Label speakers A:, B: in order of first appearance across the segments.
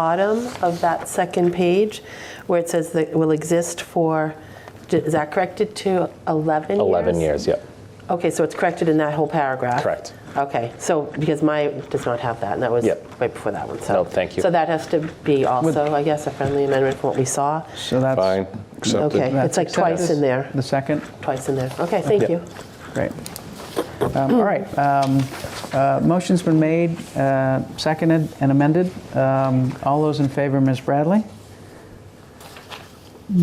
A: bottom of that second page where it says that it will exist for, is that corrected to 11 years?
B: 11 years, yep,
A: Okay, so it's corrected in that whole paragraph?
B: correct.
A: Okay, so, because my does not have that, and that was
B: Yep.
A: right before that one, so.
B: No, thank you.
A: So that has to be also, I guess, a friendly amendment from what we saw.
C: So that's.
B: Fine,
A: Okay,
B: accepted.
C: that's
A: it's like
C: accepted.
A: twice in there,
C: The second,
A: twice in there. Okay, thank
B: Yep.
A: you.
C: great. Um, All right, um, uh, motion's been made, uh, seconded and amended. Um, All those in favor, Ms. Bradley?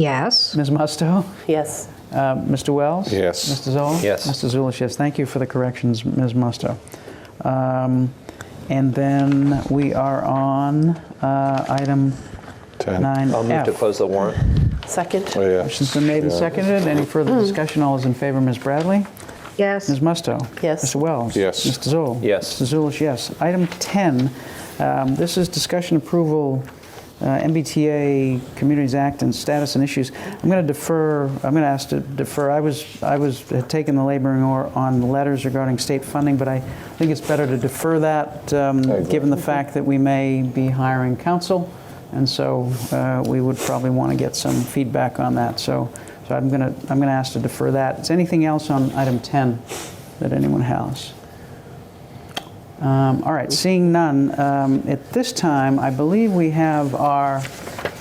D: Yes.
C: Ms. Musto?
A: Yes,
C: Uh, Mr. Wells?
E: Yes.
C: Mr. Zoll?
B: Yes.
C: Mr. Zulish, yes. Thank you for the corrections, Ms. Musto. Um, And then we are on uh, item
E: Ten.
C: 9F.
B: I'll move to close the warrant.
A: second?
E: Oh, yeah.
C: Motion's been made and
E: Yeah.
C: seconded. Any further discussion? All those in favor, Ms. Bradley?
D: Yes.
C: Ms. Musto?
A: Yes.
C: Mr. Wells?
E: Yes.
C: Mr. Zoll?
B: Yes.
C: Mr. Zulish, yes. Item 10, um, this is discussion approval, uh, MBTA Communities Act and status and issues. I'm going to defer, I'm going to ask to defer, I was, I was had taken the laboring oar on the letters regarding state funding, but I think it's better to defer that, um,
E: agree.
C: given the fact that we may be hiring counsel, and so uh, we would probably want to get some feedback on that. So, so I'm going to, I'm going to ask to defer that. Is anything else on item 10 that anyone has? Um, All right, seeing none, um, at this time, I believe we have our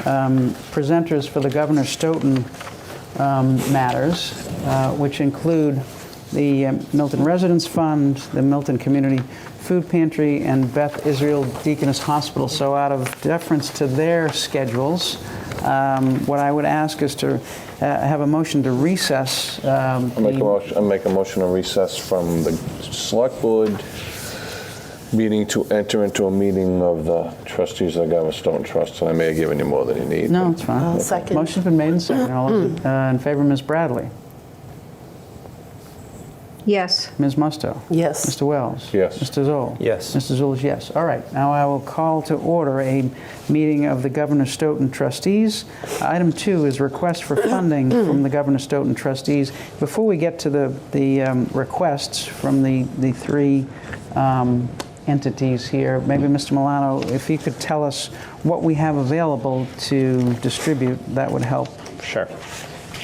C: um, presenters for the Governor Stoughton um, matters, uh, which include the um, Milton Residence Fund, the Milton Community Food Pantry, and Beth Israel Deaconess Hospital. So out of deference to their schedules, um, what I would ask is to uh, have a motion to recess. um,
E: I make a
C: the-
E: motion, I make a motion to recess from the select board meeting to enter into a meeting of the trustees of the Government Stone Trust, and I may have given you more than you need.
C: No, it's fine.
A: I'll second.
C: Motion's been made and seconded. All those in- uh, in favor, Ms. Bradley?
D: Yes.
C: Ms. Musto?
A: Yes.
C: Mr. Wells?
E: Yes.
C: Mr. Zoll?
B: Yes.
C: Mr. Zoll is yes. All right, now I will call to order a meeting of the Governor Stoughton trustees. Item two is request for funding from the Governor Stoughton trustees. Before we get to the, the um, requests from the, the three um, entities here, maybe Mr. Milano, if you could tell us what we have available to distribute, that would help.
B: Sure.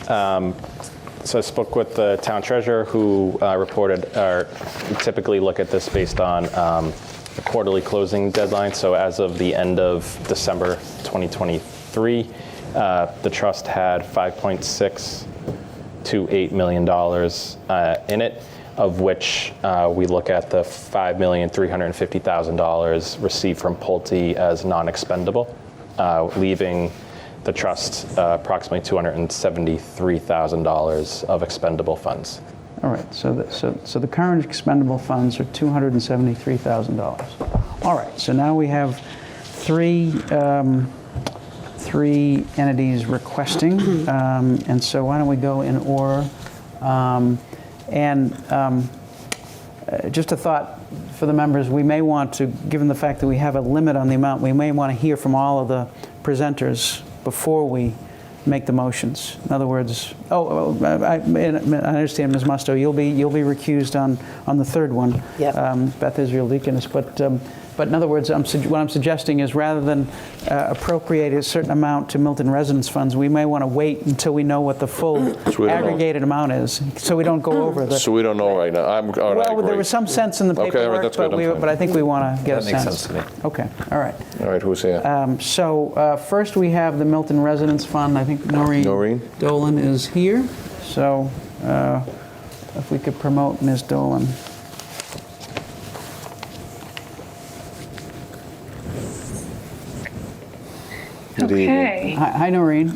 B: Um, So I spoke with the town treasurer, who uh, reported, or typically look at this based on um, the quarterly closing deadline. So as of the end of December 2023, uh, the trust had 5.628 million dollars uh, in it, of which uh, we look at the 5,350,000 dollars received from Pulte as non-expendable, uh, leaving the trust uh, approximately $273,000 of expendable funds.
C: All right, so the, so, so the current expendable funds are $273,000. All right, so now we have three, um, three entities requesting, um, and so why don't we go in order? Um, And um, uh, just a thought for the members, we may want to, given the fact that we have a limit on the amount, we may want to hear from all of the presenters before we make the motions. In other words, oh, oh, I, I I understand, Ms. Musto, you'll be, you'll be recused on, on the third one.
A: Yep.
C: um, Beth Israel Deaconess, but, um, but in other words, I'm, sug- what I'm suggesting is rather than uh, appropriate a certain amount to Milton residence funds, we may want to wait until we know what the full
E: So we don't know.
C: aggregated amount is, so we don't go over the.
E: So we don't know right now. I'm, all right, I
C: Well, there
E: agree.
C: was some sense in the
E: Okay, all right,
C: paperwork,
E: that's good,
C: but we,
E: I'm fine.
C: but I think we want to get a
F: That
C: sense.
F: makes sense to me.
C: Okay, all right.
E: All right, who's here?
C: Um, So uh, first, we have the Milton Residence Fund. I think Noreen.
E: Noreen.
C: Dolan is here, so uh, if we could promote Ms. Dolan.
E: Good evening.
G: Okay,
C: Hi- Hi, Noreen.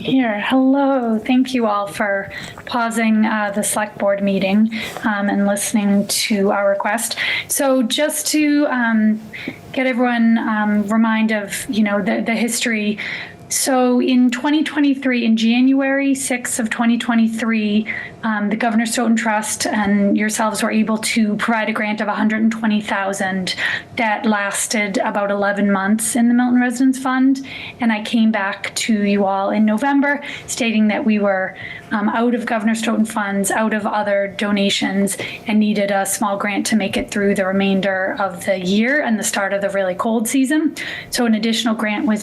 G: here. Hello. Thank you all for pausing uh, the select board meeting um, and listening to our request. So just to um, get everyone um, remind of, you know, the, the history. So in 2023, in January 6th of 2023, um, the Governor Stoughton Trust and yourselves were able to provide a grant of 120,000 that lasted about 11 months in the Milton Residence Fund. And I came back to you all in November stating that we were um, out of Governor Stoughton funds, out of other donations, and needed a small grant to make it through the remainder of the year and the start of the really cold season. So an additional grant was